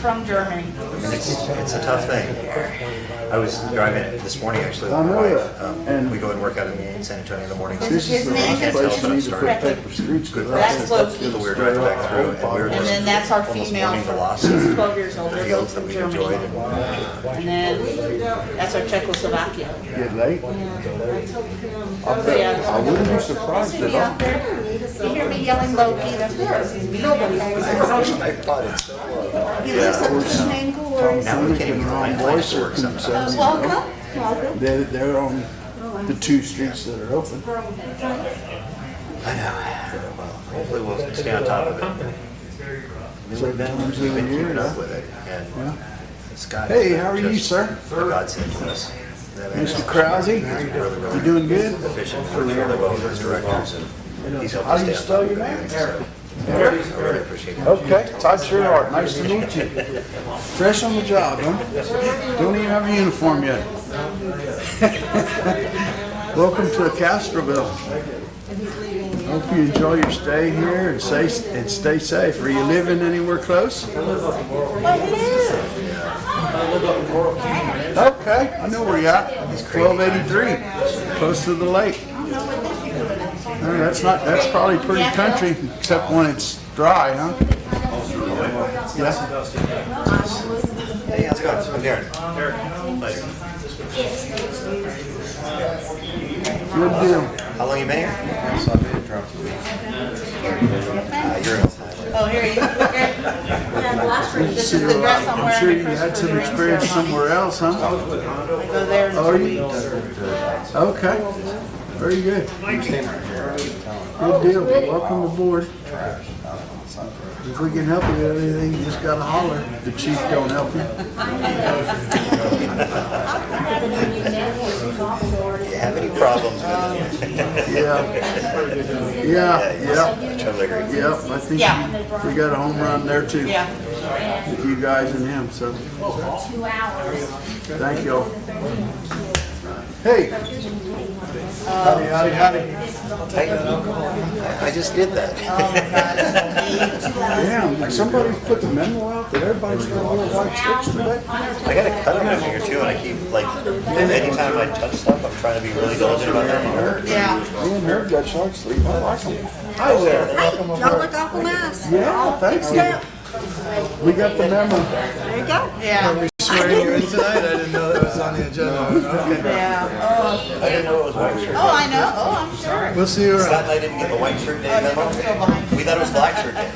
from Germany. mean, it's, it's a tough thing. I was driving it this morning, actually, I with my know wife. that. Um, And- we go and work out in San Antonio in the mornings. This This is the Isn't it last place interesting? you need to put Correct. paper streets. 'cause That's what- low-key. We were driving back through and we were And just. then that's our almost female morning from, velocity she's 12 years old, they're both Fields that from we enjoyed. Germany. and And then that's our Czechoslovakia. Get late. Oh, yeah. I wouldn't be surprised at all. You hear me yelling Loki, that's yours. Nobody. I thought it's so low. You listen to me and glory. Now we can't Women can even run find voice places to work circumstances, sometimes. you know. Welcome, welcome. They're, they're on the two streets that are open. I know. Well, hopefully we'll stay on top of it. I mean, We've been, Sometimes we've been we keeping hear up that. with it and it's got. Hey, how are you, just sir? A godsend to us. That man is- Mr. Krause, he's really, really you doing good? efficient, works really well with his directors and he's helped How us do you stay on top spell of your name? everything. so I really appreciate it. Okay, Todd Sherhart, nice to meet you. Fresh on the job, huh? Don't even have a uniform yet. Welcome to Castroville. Hope you enjoy your stay here and stay, and stay safe. Are you living anywhere close? Well, hello. Okay, I know where you're at. It's twelve eighty-three, close to the lake. No, That's not, that's probably pretty country, except when it's dry, huh? Yeah, Hey, how's it going? I'm Darren. Pleasure. good deal. How long you been here? So I've been drunk for weeks. Uh, you're in. Oh, here he is. This is the dress I'm wearing. I'm sure you had some experience somewhere else, huh? I go there in Oh, two you- weeks. Okay, very good. I'm staying right here. I'm telling you, Good deal, welcome aboard. trash. I don't know, it's not for- If we can help you with anything, you just gotta holler. The chief don't help you. Do you have any problems with it? Yeah. Yeah, yeah, I totally agree. yeah, I think Yeah. we got a home run there too. Yeah. With you guys and him, so. Thank y'all. Hey. Howdy, howdy, howdy. Hey, I I just did that. Damn, somebody put the memo out that everybody's got little white strips today? I got a cut on here too, and I keep like, anytime I touch stuff, I'm trying to be really diligent about that. Yeah. Me and her got short sleeve, I like them. Hi there. Hey, y'all look awful nice. Yeah, thank you. We got the memo. There you go. Yeah. swearing you in tonight? I didn't know that was on the agenda. Okay. Yeah. I didn't know it was white shirt. Oh, I know. Oh, I'm sure. We'll see you It's not around. that I didn't get the white shirt day memo. We thought it was black shirt day.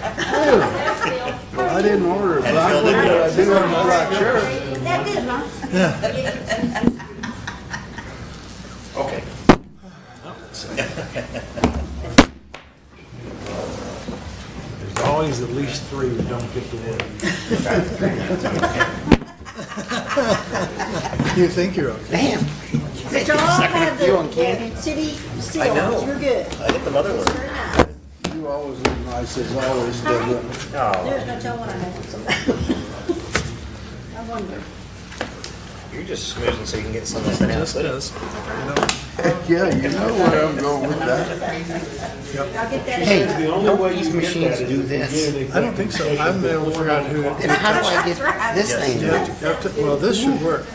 I didn't order a black one, but I do order a black shirt. That good, huh? Okay. There's always at least three who don't get the word. You think you're okay? But y'all have the city seals, you're good. I hit the mother one. Very nice. You always look nice as always, Deborah. Oh. No, There's no telling what I have. I wonder. you're just smoozing so you can get some of that Yes, it out. is. Heck, yeah, you know where I'm going with that. I'll get that. The only way you get that is if you get I don't think so. I haven't been able to figure out who. And how do I get this thing? to Yeah, work? you have to- Well, this should work.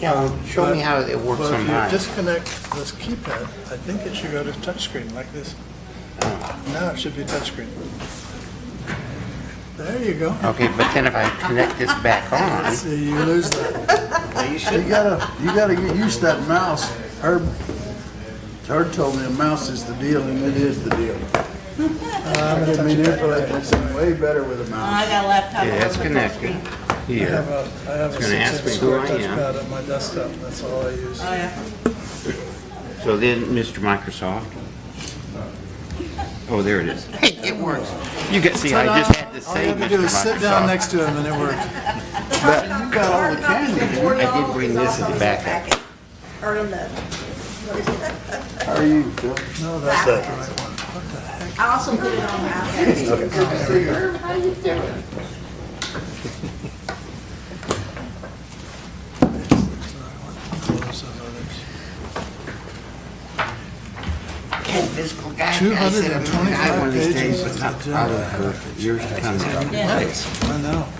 Yeah, show me how it works Well, on if you mine. disconnect this keypad, I think it should go to touchscreen like this. Now it should be touchscreen. There you go. Okay, but then if I connect this back on, See, you lose that. No, you You should. gotta, you gotta get used to that mouse. Herb, Herb told me a mouse is the deal, and it is the deal. Uh, I can manipulate this thing way better with a mouse. I got a laptop. yeah, it's connected I have here. a, I have a It's gonna ask six-inch me square who I am. touchpad on my desktop. That's all I use. Oh, yeah. So then, Mr. Microsoft. Oh, there it is. Hey, it works. You can see, I just had to All you say, have to do Mr. is sit down Microsoft. next to him and it worked. But you got all the candy. I did bring this as a backup. Or in the, How are you, Phil? No, that's So- not the right one. What the heck? I also put it on my iPad. Close of others. Hey, physical guy, I said, "Mm, I'm gonna die 225 one of these days, pages but not of probably for years to come. Nice. I know.